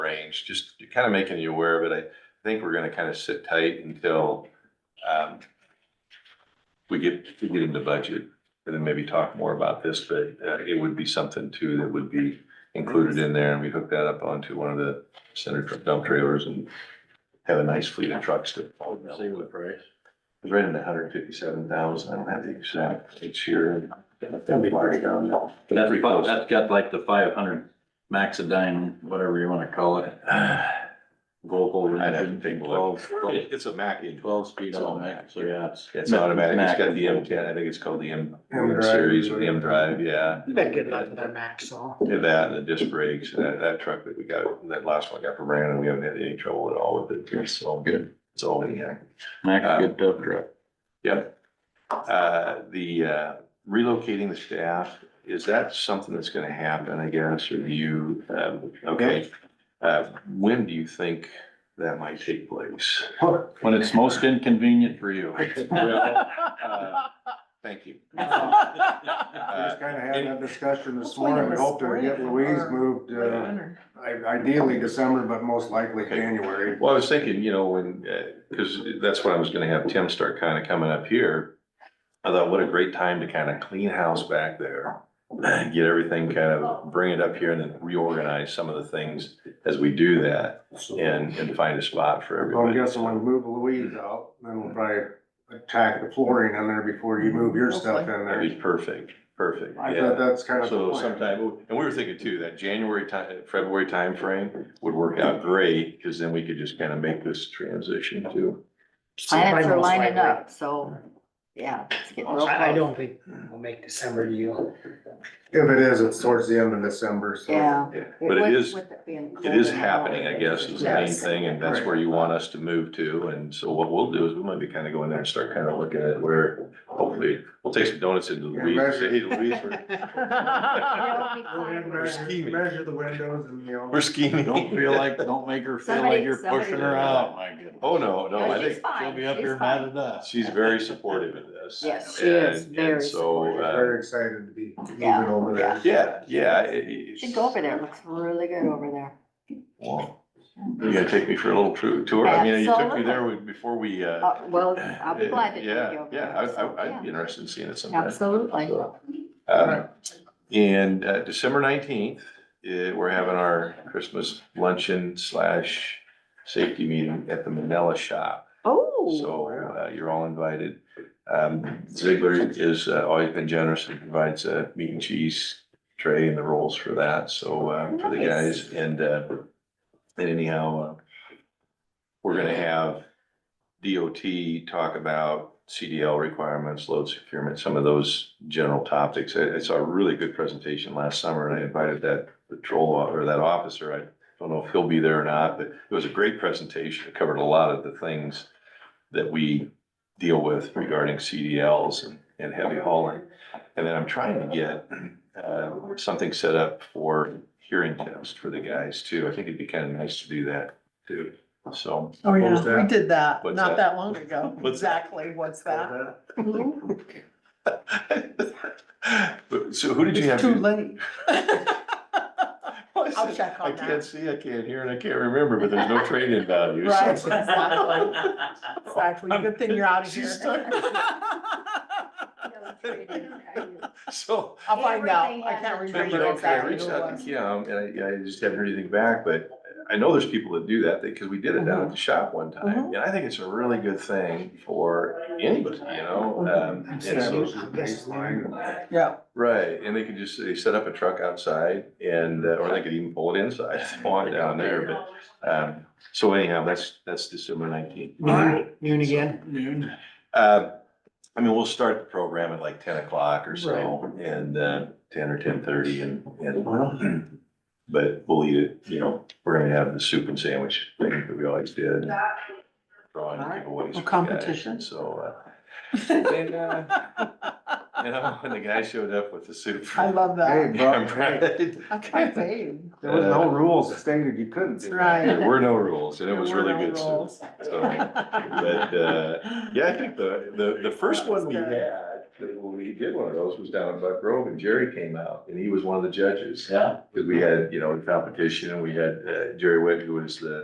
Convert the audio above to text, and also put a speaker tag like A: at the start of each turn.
A: range, just kind of making you aware of it. I think we're gonna kind of sit tight until um we get, we get into budget and then maybe talk more about this, but uh, it would be something too that would be included in there and we hook that up onto one of the center truck dump trailers and have a nice fleet of trucks to.
B: Same with price.
A: It's right in the hundred fifty-seven thousand. I don't have the exact, it's here.
B: That'd be pretty But that's,
A: Pretty
B: fi-
A: close.
B: that's got like the five hundred Maxidine, whatever you wanna call it, Volvo.
A: I'd have to take a look.
B: 12
A: It's a Mack in
B: Twelve speed automatic, so yeah, it's.
A: It's automatic, it's
B: Mac
A: got
B: and
A: the M
B: Volvo.
A: ten, I think it's called the M
C: M drive.
A: series or the M drive, yeah.
C: Been good luck with our max all.
A: Yeah, That and the disc brakes, and that, that truck that we got, that last one I got from Brandon, we haven't had any trouble at all with it, it's all good, it's all in here.
B: Mack's a good tough truck.
A: Yep. Uh, the uh, relocating the staff, is that something that's gonna happen, I guess, or do you, um, okay? Uh, when do you think that might take place?
B: When it's most inconvenient for you.
A: Well, uh, Thank you.
D: This
A: Uh,
E: just kind of had that discussion this
D: Hopefully
E: morning. We
D: this
E: hope to get
D: spring
E: Louise
D: or-
E: moved, uh, i- ideally December, but most likely
A: Okay.
E: January.
A: Well, I was thinking, you know, when, uh 'cause cause that's when I was gonna have Tim start kind of coming up here. I thought, what a great time to kind of clean house back there, get everything kind of, bring it up here and then reorganize some of the things as we do that and, and find a spot for
E: So I'm
A: everybody.
E: guessing when we move Louise out, then we'll probably attack the flooring in there before you move your stuff in
A: That'd be
E: there.
A: perfect, perfect,
E: I thought
A: yeah.
E: that's kind of. the
A: So
E: plan.
A: sometime, and we were thinking too, that January time, February timeframe would work out great, cause then we could just kind of make this transition too.
D: Planets are
C: Most
D: lining
C: likely.
D: up, so, yeah, it's getting real
C: I, I
D: close.
C: don't think we'll make December deal.
E: If it is, it's towards the end of December, so.
D: Yeah.
A: Yeah, But it
D: with-
A: is,
D: with it being
A: It
D: cold
A: is
D: and
A: happening, I
D: all.
A: guess, is the main
D: Yes.
A: thing, and that's where you want us to move to, and so what we'll do is we might be kind of going there and start kind of looking at where, hopefully, we'll take some donuts into Louise, and say, hey, Louise, we're,
D: It'll
E: Go
D: be
E: ahead and
D: fun.
E: measure-
A: scheming.
E: Measure the windows and, you know.
A: we're scheming.
B: Don't feel like, don't make her feel like
D: Somebody-
B: you're pushing
D: somebody-
B: her out, my goodness.
A: Oh, no, no, I
D: No, she's
A: think
B: She'll
D: fine,
B: be up
D: she's
B: here mad
D: fine.
B: at us.
A: she's very supportive of this.
D: Yes, she is
A: And- and
D: very
A: So,
E: We're
A: uh,
E: Very excited to be
D: Yeah,
E: moving over there.
A: yeah, yeah. it- it-
D: Should go over there, it looks really good over there.
A: Well, You gonna take me for a little tru- tour, I mean, you took me there we- before we, uh.
D: Uh, well, I'll be glad to take you
A: Yeah,
D: over
A: yeah,
D: there.
A: I,
D: so,
A: I, I'd be
D: yeah.
A: interested in seeing it sometime.
D: Absolutely.
A: So, um, And uh, December nineteenth, uh, we're having our Christmas luncheon slash safety meeting at the Manila Shop.
D: Oh,
A: So uh, you're all invited. Um, Ziegler is uh, always been generous and provides a meat and cheese tray and the rolls for that, so uh, for the
D: Nice.
A: guys. And uh, and anyhow, uh, we're gonna have DOT talk about CDL requirements, load securement, some of those general topics. I, I saw a really good presentation last summer and I invited that patrol o- or that officer. I don't know if he'll be there or not, but it was a great presentation. It covered a lot of the things that we deal with regarding CDLs and, and heavy hauling. And then I'm trying to get, uh, something set up for hearing test for the guys too. I think it'd be kind of nice to do that too. So,
D: Oh,
E: yeah. What's
D: yeah.
E: that?
D: We did that,
A: What's not that?
D: long ago.
A: What's that?
D: what's
A: But, so who did you have? do-
D: late.
A: Well, I
D: I'll
A: said,
D: check on
A: I
D: that.
A: can't see, I can't hear, and I can't remember, but there's no trade-in value. so-
D: Right, exactly. Exactly,
A: Good
D: thing you're out
A: She's stuck with So,
D: I'll find out, I can't
A: I
D: remember
A: reached out to Kim, and I, yeah, I just haven't heard anything back, but I know there's people that do that, because we did it down at the shop one time. And I think it's a really good thing for anybody, you know? um, and so-
E: Establish the baseline.
F: Yeah,
A: Right, and they could just, they set up a truck outside and, uh, or they could even pull it inside if they want down there, but, um, so anyhow, that's, that's December nineteenth.
C: Noon noon again.
B: Noon.
A: Uh, I mean, we'll start the program at like ten o'clock or so and, uh, ten or ten thirty and, and, but we'll eat it, you know, we're gonna have the soup and sandwich thing that we always did. Drawing giveaways. for
F: Competition.
A: guys, So, uh, and, uh, you know, when the guy showed up with the soup.
F: I love that.
E: Hey, bro,
A: Yeah,
E: hey.
A: right.
F: That's my fave.
E: There was no rules stated you couldn't do that.
F: Right.
A: There were no rules and it was really good soup. uh,
F: Rules.
A: So, But, uh, yeah, I think the, the, the first one we had when we did one of those was down in Buck Grove and Jerry came out and he was one of the judges.
B: Yeah.
A: Cause we had, you know, in competition and we had uh, Jerry Witt, who was the